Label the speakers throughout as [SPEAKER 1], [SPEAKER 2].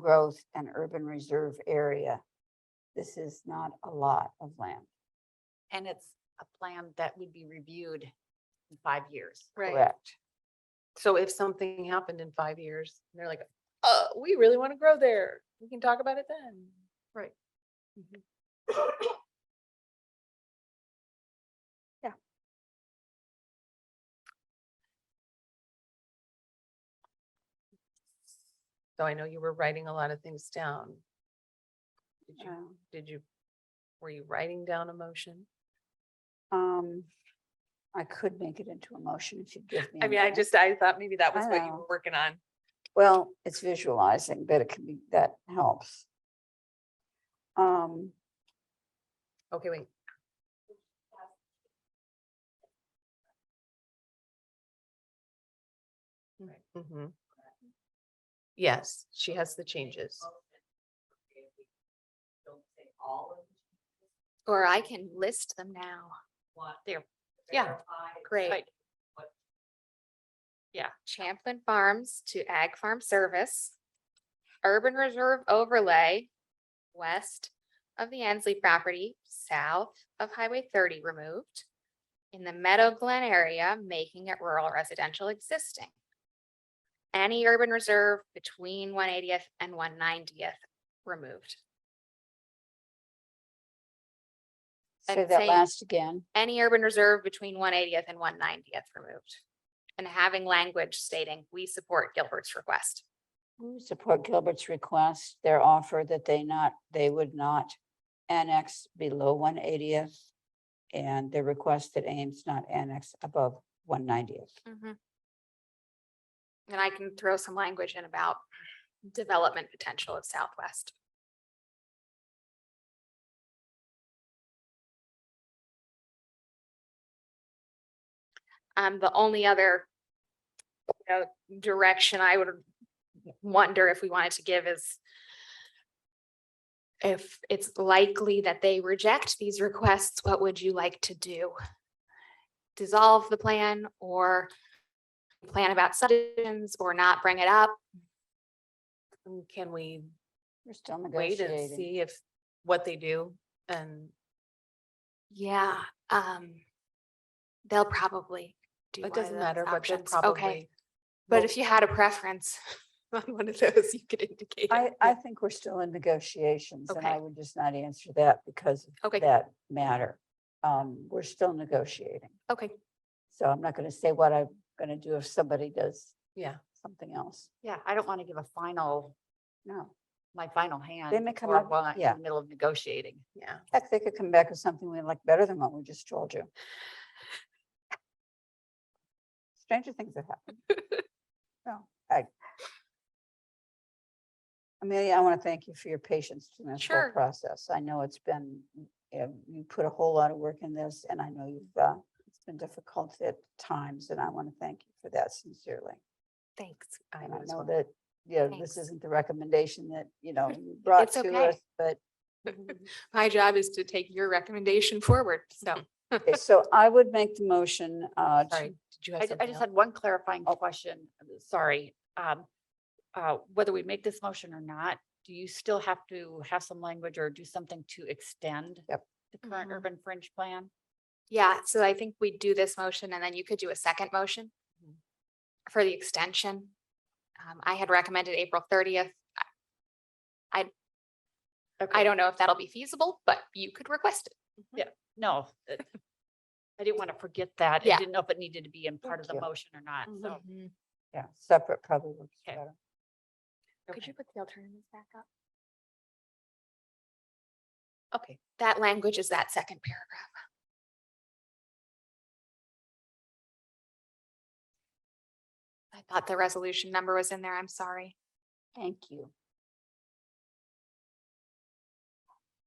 [SPEAKER 1] growth and urban reserve area. This is not a lot of land,
[SPEAKER 2] And it's a plan that would be reviewed in five years.
[SPEAKER 3] Right.
[SPEAKER 1] correct?
[SPEAKER 3] So if something happened in five years, and they're like, uh, we really want to grow there. We can talk about it then. Mm-hmm. Right. So I know you were writing a lot of things down. Did you,
[SPEAKER 1] Um,
[SPEAKER 3] did you, were you writing down a motion?
[SPEAKER 1] Um, I could make it into a motion if you'd give me.
[SPEAKER 3] I
[SPEAKER 1] a
[SPEAKER 3] mean, I
[SPEAKER 1] minute.
[SPEAKER 3] just, I thought maybe that was what you
[SPEAKER 1] know.
[SPEAKER 3] were working on.
[SPEAKER 1] Well, it's visualizing, but it can be, that helps. Um,
[SPEAKER 3] Okay, wait. Mhm. Yes, she has the changes.
[SPEAKER 2] Or I can list them now. There.
[SPEAKER 3] Yeah,
[SPEAKER 2] Great.
[SPEAKER 3] Yeah.
[SPEAKER 2] Champlin Farms to Ag Farm Service. Urban Reserve Overlay, west of the Ansley property, south of Highway thirty removed. In the Meadow Glen area, making it rural residential existing. Any urban reserve between one eightieth and one ninetieth removed.
[SPEAKER 1] say
[SPEAKER 2] I'd
[SPEAKER 1] that
[SPEAKER 2] say-
[SPEAKER 1] last again.
[SPEAKER 2] any urban reserve between one eightieth and one ninetieth removed. And having language stating, we support Gilbert's request.
[SPEAKER 1] We Support Gilbert's request, their offer that they not, they would not annex below one eightieth. And their request that Ames not annex above one ninetieth.
[SPEAKER 2] And Mm-hmm. I can throw some language in about development potential of Southwest. Um, the only other you know, direction I would wonder if we wanted to give is if it's likely that they reject these requests, what would you like to do? Dissolve the plan or plan about subdivisions or not bring it up?
[SPEAKER 3] And Can we
[SPEAKER 1] We're still
[SPEAKER 3] wait and
[SPEAKER 1] negotiating.
[SPEAKER 3] see if, what they do? And
[SPEAKER 2] Yeah, um, they'll probably do
[SPEAKER 3] it
[SPEAKER 2] one of
[SPEAKER 3] doesn't
[SPEAKER 2] those
[SPEAKER 3] matter, but they'll
[SPEAKER 2] options. Okay,
[SPEAKER 3] probably.
[SPEAKER 2] but
[SPEAKER 3] will-
[SPEAKER 2] if you had a preference on one of those, you could indicate.
[SPEAKER 1] I,
[SPEAKER 2] it.
[SPEAKER 1] I think we're still in negotiations and I
[SPEAKER 2] Okay.
[SPEAKER 1] would just not answer that because of
[SPEAKER 2] Okay,
[SPEAKER 1] that matter. Um, we're still negotiating.
[SPEAKER 2] okay,
[SPEAKER 1] So I'm not gonna say what I'm gonna do if somebody does
[SPEAKER 3] Yeah,
[SPEAKER 1] something else.
[SPEAKER 4] Yeah, I don't want to give a final,
[SPEAKER 1] No.
[SPEAKER 4] my final hand.
[SPEAKER 1] They may come
[SPEAKER 4] before
[SPEAKER 1] up-
[SPEAKER 4] while I'm
[SPEAKER 1] yeah.
[SPEAKER 4] In the middle of negotiating.
[SPEAKER 3] yeah.
[SPEAKER 1] Heck, they could come back with something we like better than what we just told you. Stranger things have happened. No, I. Amelia, I want to thank you for your patience in this whole
[SPEAKER 2] Sure.
[SPEAKER 1] process. I know it's been, you know, you put a whole lot of work in this and I know you've, uh, it's been difficult at times and I want to thank you for that sincerely.
[SPEAKER 2] thanks.
[SPEAKER 1] And
[SPEAKER 3] would
[SPEAKER 1] I
[SPEAKER 3] as
[SPEAKER 1] know
[SPEAKER 3] well.
[SPEAKER 1] that, you know, this
[SPEAKER 2] Thanks.
[SPEAKER 1] isn't the recommendation that, you know, you brought
[SPEAKER 2] It's
[SPEAKER 1] to
[SPEAKER 2] okay.
[SPEAKER 1] us, but
[SPEAKER 2] My job is to take your recommendation forward, so.
[SPEAKER 1] Okay, So I would make the motion, uh, to,
[SPEAKER 3] Sorry, did you have
[SPEAKER 4] I, ju- I
[SPEAKER 3] something
[SPEAKER 4] just
[SPEAKER 3] else?
[SPEAKER 4] had one clarifying
[SPEAKER 1] Oh.
[SPEAKER 4] question, uh, sorry. Um, uh, whether we make this motion or not, do you still have to have some language or do something to extend?
[SPEAKER 1] Yep.
[SPEAKER 4] The current
[SPEAKER 2] Mhm.
[SPEAKER 4] urban fringe plan?
[SPEAKER 2] Yeah, so I think we do this motion and then you could do a second motion
[SPEAKER 3] Mhm.
[SPEAKER 2] for the extension. Um, I had recommended April thirtieth. I, I
[SPEAKER 4] Okay.
[SPEAKER 2] don't know if that'll be feasible, but you could request it.
[SPEAKER 4] No. uh, I didn't want to forget that. I
[SPEAKER 2] Yeah. Mm-hmm.
[SPEAKER 4] didn't know if it needed to be in part of the
[SPEAKER 1] Thank you.
[SPEAKER 4] motion or not, so.
[SPEAKER 1] yeah, separate probably works
[SPEAKER 4] Okay.
[SPEAKER 1] better.
[SPEAKER 2] Could you put the alternatives back up?
[SPEAKER 3] Okay,
[SPEAKER 2] That language is that second paragraph. I thought the resolution number was in there. I'm sorry.
[SPEAKER 1] Thank you.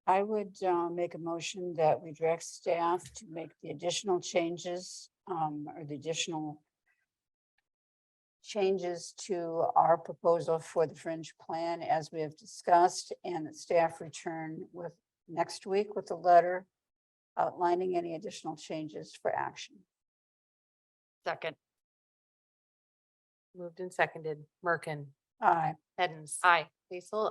[SPEAKER 1] I would, uh, make a motion that we direct staff to make the additional changes, um, or the additional changes to our proposal for the fringe plan as we have discussed and that staff return with next week with a letter outlining any additional changes for action.
[SPEAKER 4] Second,
[SPEAKER 3] moved and seconded. Merkin,
[SPEAKER 1] Aye.
[SPEAKER 3] Edens.
[SPEAKER 4] Aye.
[SPEAKER 3] Basil,